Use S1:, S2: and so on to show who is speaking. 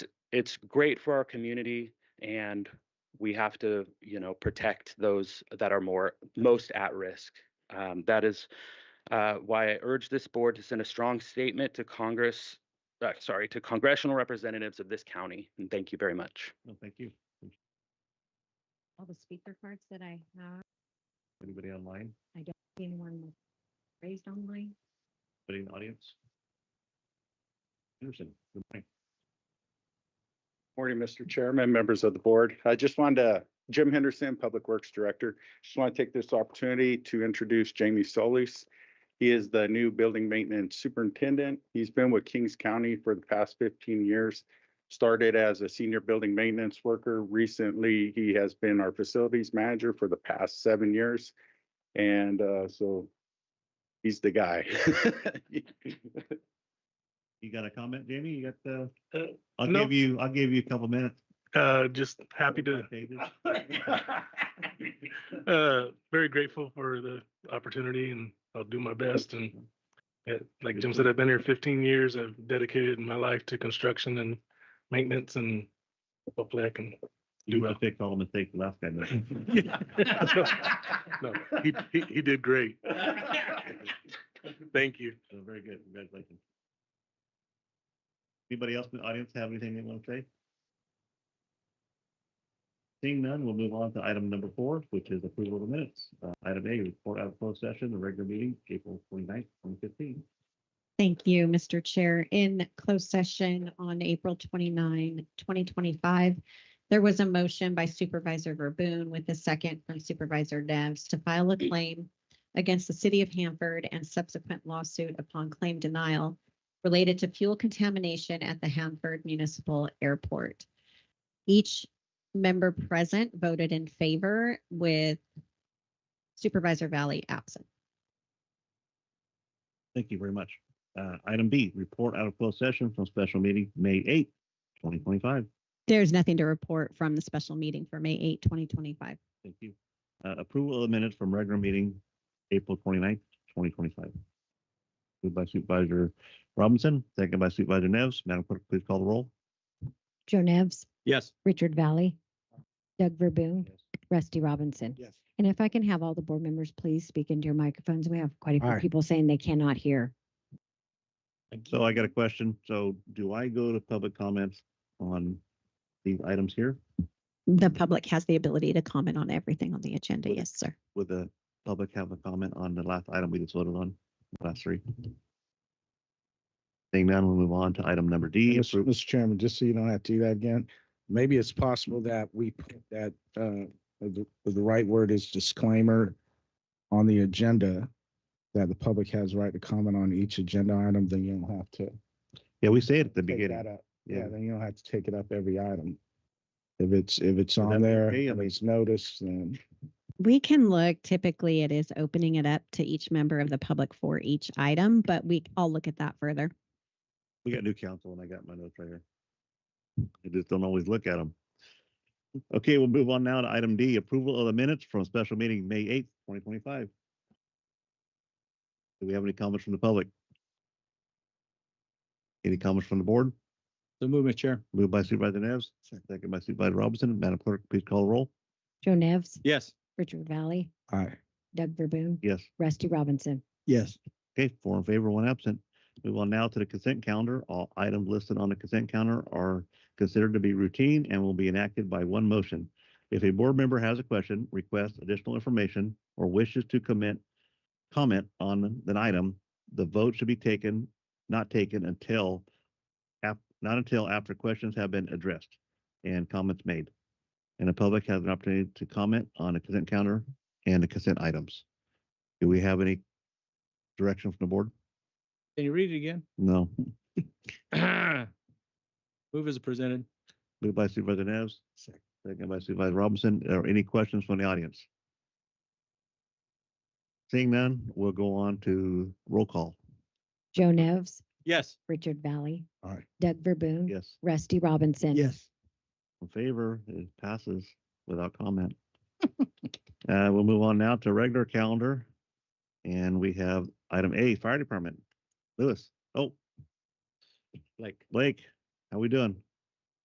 S1: it's great for our community and we have to you know protect those that are more most at risk um, that is uh, why i urge this board to send a strong statement to congress uh, sorry to congressional representatives of this county and thank you very much
S2: No, thank you.
S3: all the speaker cards that I have,
S2: Anybody online?
S3: anyone with- raised online.
S2: Anybody in the audience? Anderson, good morning.
S4: Morning, Mr. Chairman, members of the board. I just wanted to, Jim Henderson, Public Works Director. Just want to take this opportunity to introduce Jamie Solis. He is the new Building Maintenance Superintendent. He's been with Kings County for the past fifteen years. Started as a senior building maintenance worker. Recently, he has been our facilities manager for the past seven years. And uh, so he's the guy.
S2: You got a comment, Jamie? You got the,
S5: Uh,
S2: I'll
S5: no.
S2: give you, I'll give you a couple minutes.
S5: Uh, just happy to,
S2: David.
S5: uh, very grateful for the opportunity and I'll do my best. And uh, like Jim said, I've been here fifteen years. I've dedicated my life to construction and maintenance and hopefully I can
S2: You will fix all the mistakes the last guy made.
S5: No, he, he, he did great. Thank you.
S2: So very good, congratulations. Anybody else in the audience have anything they want to say? Seeing none, we'll move on to item number four, which is approval of the minutes. Uh, item A, report out of closed session, the regular meeting, April 29th, twenty fifteen.
S3: Thank you, Mr. Chair. In closed session on April 29, 2025, there was a motion by Supervisor Verboen with a second from Supervisor Neves to file a claim against the city of Hanford and subsequent lawsuit upon claim denial related to fuel contamination at the Hanford Municipal Airport. Each member present voted in favor with Supervisor Valley absent.
S2: Thank you very much. Uh, item B, report out of closed session from special meeting, May eighth, twenty twenty-five.
S3: There's nothing to report from the special meeting for May 8, 2025.
S2: Thank you. Uh, approval of the minutes from regular meeting, April 29th, twenty-five. Moved by Supervisor Robinson, second by Supervisor Neves. Madam Clerk, please call the roll.
S6: Joe Nevs,
S2: Yes.
S6: Richard Valley, Doug Verboon, Rusty Robinson.
S2: Yes.
S6: And if I can have all the board members please speak into your microphones. We have quite a few
S2: All right.
S6: people saying they cannot hear.
S2: So I got a question. So do I go to public comments on these items here?
S3: The public has the ability to comment on everything on the agenda.
S2: Would-
S3: Yes, sir.
S2: Would the public have a comment on the last item we just voted on, last three? Seeing none, we'll move on to item number D.
S7: Mr.
S2: appro-
S7: Mr. Chairman, just so you don't have to do that again, maybe it's possible that we put that, uh, the, the right word is disclaimer on the agenda, that the public has right to comment on each agenda item, then you don't have to
S2: Yeah, we say it at the
S7: take that
S2: beginning.
S7: up. Yeah, then you don't have to take it up every item. If it's, if it's
S2: that
S7: on there,
S2: okay? I
S7: and
S2: mean-
S7: it's noticed, then
S3: We can look, typically it is opening it up to each member of the public for each item, but we, I'll look at that further.
S2: We got new council and I got my notes right here. I just don't always look at them. Okay, we'll move on now to item D, approval of the minutes from special meeting, May eighth, twenty twenty-five. Do we have any comments from the public? Any comments from the board?
S7: the movement chair.
S2: Moved by Supervisor Neves, second by Supervisor Robinson. Madam Clerk, please call the roll.
S6: Joe Nevs,
S7: Yes.
S6: Richard Valley,
S7: Aye.
S6: Doug Verboon,
S2: Yes.
S6: Rusty Robinson.
S7: Yes.
S2: Okay, four in favor, one absent. Move on now to the consent calendar. All items listed on the consent calendar are considered to be routine and will be enacted by one motion. If a board member has a question, requests additional information, or wishes to comment, comment on an item, the vote should be taken, not taken until, af- not until after questions have been addressed and comments made. And the public has an opportunity to comment on the consent calendar and the consent items. Do we have any direction from the board?
S8: Can you read it again?
S2: No.
S8: Move as presented.
S2: Moved by Supervisor Neves, second by Supervisor Robinson. Are any questions from the audience? Seeing none, we'll go on to roll call.
S6: Joe Nevs,
S8: Yes.
S6: Richard Valley,
S7: Aye.
S6: Doug Verboon,
S2: Yes,
S6: Rusty Robinson.
S2: in favor, it passes without comment. Uh, we'll move on now to regular calendar. And we have item A, Fire Department. Lewis, oh,
S8: Like,
S2: Blake, how we doing?